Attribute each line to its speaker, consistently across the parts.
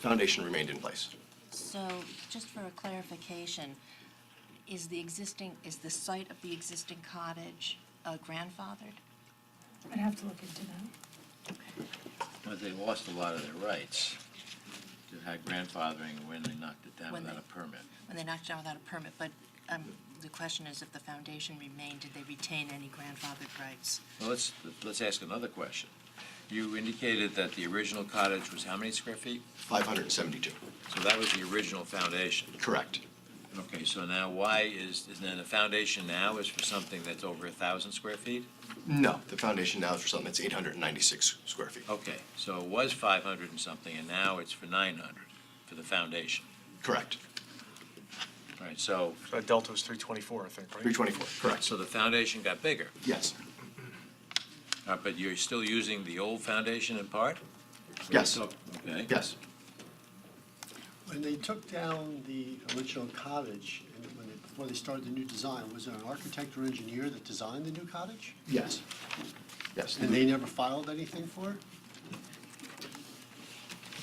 Speaker 1: foundation remained in place.
Speaker 2: So, just for a clarification, is the existing, is the site of the existing cottage uh, grandfathered?
Speaker 3: I'd have to look into that.
Speaker 4: But they lost a lot of their rights to have grandfathering when they knocked it down
Speaker 2: When
Speaker 4: without a
Speaker 2: they-
Speaker 4: permit.
Speaker 2: When they knocked it down without a permit, but um, the question is if the foundation remained, did they retain any grandfathered rights?
Speaker 4: Well, let's, let's ask another question. You indicated that the original cottage was how many square feet?
Speaker 1: 572,
Speaker 4: So that was the original foundation.
Speaker 1: correct.
Speaker 4: Okay, so now why is, is then the foundation now is for something that's over a thousand square feet?
Speaker 1: No, the foundation now is for something that's 896 square feet.
Speaker 4: Okay, so it was five hundred and something, and now it's for nine hundred for the foundation.
Speaker 1: Correct.
Speaker 4: All right, so,
Speaker 5: Uh, Delta was 324, I think, right?
Speaker 1: 324, correct.
Speaker 4: so the foundation got bigger,
Speaker 1: Yes,
Speaker 4: Uh, but you're still using the old foundation in part?
Speaker 1: yes,
Speaker 4: Okay.
Speaker 1: yes.
Speaker 6: When they took down the original cottage, and when they, before they started the new design, was there an architect or engineer that designed the new cottage?
Speaker 1: Yes. Yes.
Speaker 6: And they never filed anything for it?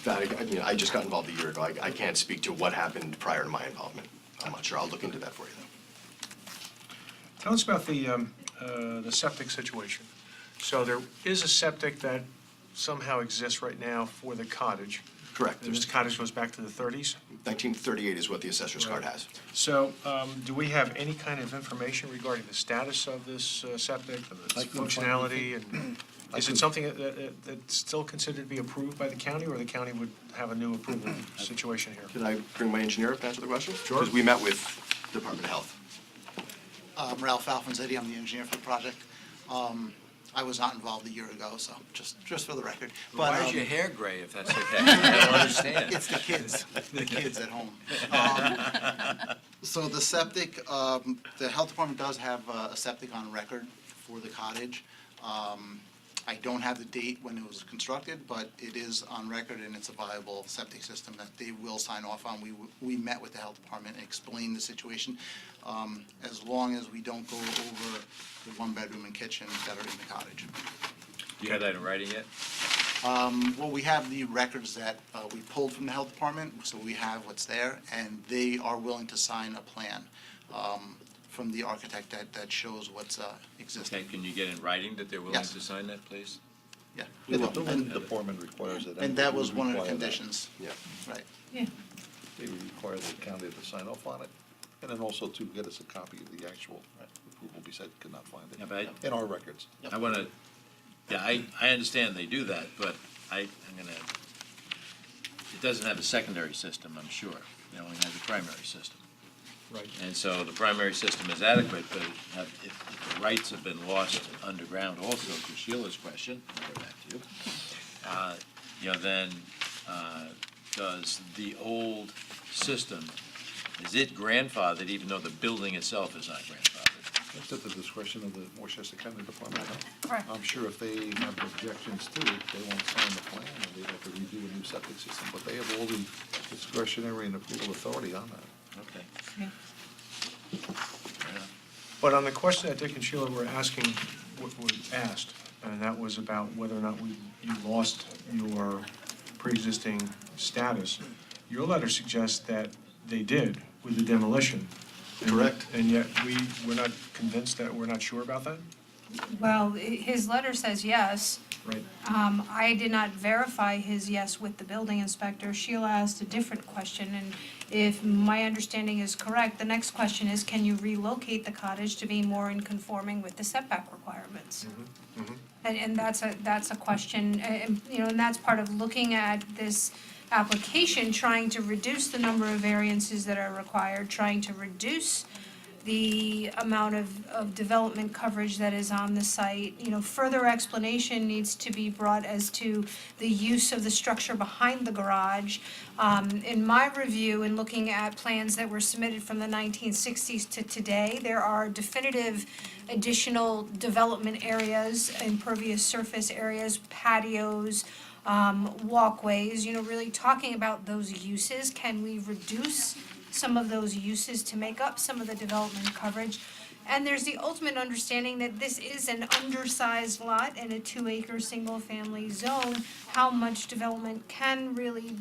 Speaker 1: That, I mean, I just got involved a year ago. I, I can't speak to what happened prior to my involvement. I'm not sure. I'll look into that for you, though.
Speaker 5: Tell us about the, um, uh, the septic situation. So there is a septic that somehow exists right now for the cottage.
Speaker 1: Correct.
Speaker 5: And This cottage goes back to the 30s.
Speaker 1: 1938 is what the assessor's card
Speaker 5: Right.
Speaker 1: has.
Speaker 5: So um, do we have any kind of information regarding the status of this uh, septic, of its
Speaker 6: I couldn't find
Speaker 5: functionality? And is it something that- that, that's still considered to be approved by the county, or the county would have a new approval situation here?
Speaker 1: Can I bring my engineer up to answer the question?
Speaker 5: Sure.
Speaker 1: Because we met with Department of Health.
Speaker 7: I'm Um, Ralph Alfonzetti, I'm the engineer for the project. Um, I was not involved a year ago, so just, just for the record. But
Speaker 4: Why is
Speaker 7: um,
Speaker 4: your hair gray if that's okay? I don't understand.
Speaker 7: It's the kids, the kids at home. Um, So the septic, um, the health department does have uh, a septic on record for the cottage. Um, I don't have the date when it was constructed, but it is on record and it's a viable septic system that they will sign off on. We, w- we met with the health department and explained the situation. um, As long as we don't go over the one bedroom and kitchen that are in the cottage.
Speaker 4: Do you have that in writing yet?
Speaker 7: Well, we have the records that uh, we pulled from the health department, so we have what's there, and they are willing to sign a plan um, from the architect that, that shows what's uh,
Speaker 4: Okay,
Speaker 7: existing.
Speaker 4: can you get in writing that they're willing
Speaker 7: Yes.
Speaker 4: to sign that, please?
Speaker 7: Yeah.
Speaker 8: The
Speaker 7: And-
Speaker 8: building department requires it.
Speaker 7: And that was
Speaker 8: we
Speaker 7: one of the
Speaker 8: require that.
Speaker 7: conditions,
Speaker 1: Yeah.
Speaker 7: right.
Speaker 3: Yeah.
Speaker 8: They require the county to sign off on it, and then also to get us a copy of the actual approval, besides could not find
Speaker 4: Yeah, but
Speaker 8: it
Speaker 4: I-
Speaker 8: in our records.
Speaker 4: I want to, yeah, I, I understand they do that, but I, I'm going to, it doesn't have a secondary system, I'm sure. It only has a primary system.
Speaker 5: Right.
Speaker 4: And so the primary system is adequate, but it have- if if the rights have been lost underground also, to Sheila's question, I'll go back to you, uh, you know, then uh, does the old system, is it grandfathered even though the building itself is not grandfathered?
Speaker 8: That's at the discretion of the Westchester County Department. of Health.
Speaker 3: Correct.
Speaker 8: I'm sure if they have objections to it, they won't sign the plan, and they'd have to redo a new septic system, but they have all the discretionary and approval authority on that.
Speaker 4: Okay.
Speaker 3: Yeah.
Speaker 5: But on the question that Dick and Sheila were asking, w- were asked, and that was about whether or not we, you lost your pre-existing status, your letter suggests that they did with the demolition. And-
Speaker 1: Correct.
Speaker 5: And yet, we, we're not convinced that, we're not sure about that?
Speaker 3: Well, i- his letter says yes.
Speaker 5: Right.
Speaker 3: Um, I did not verify his yes with the building inspector. Sheila asked a different question, and if my understanding is correct, the next question is, can you relocate the cottage to be more in conforming with the setback requirements? And, and that's a, that's a question, a- and, you know, and that's part of looking at this application, trying to reduce the number of variances that are required, trying to reduce the amount of, of development coverage that is on the site. You know, further explanation needs to be brought as to the use of the structure behind the garage. Um, in my review, in looking at plans that were submitted from the nineteen sixties to today, there are definitive additional development areas, impervious surface areas, patios, um, walkways, you know, really talking about those uses. Can we reduce some of those uses to make up some of the development coverage? And there's the ultimate understanding that this is an undersized lot in a two-acre, single-family zone. How much development can really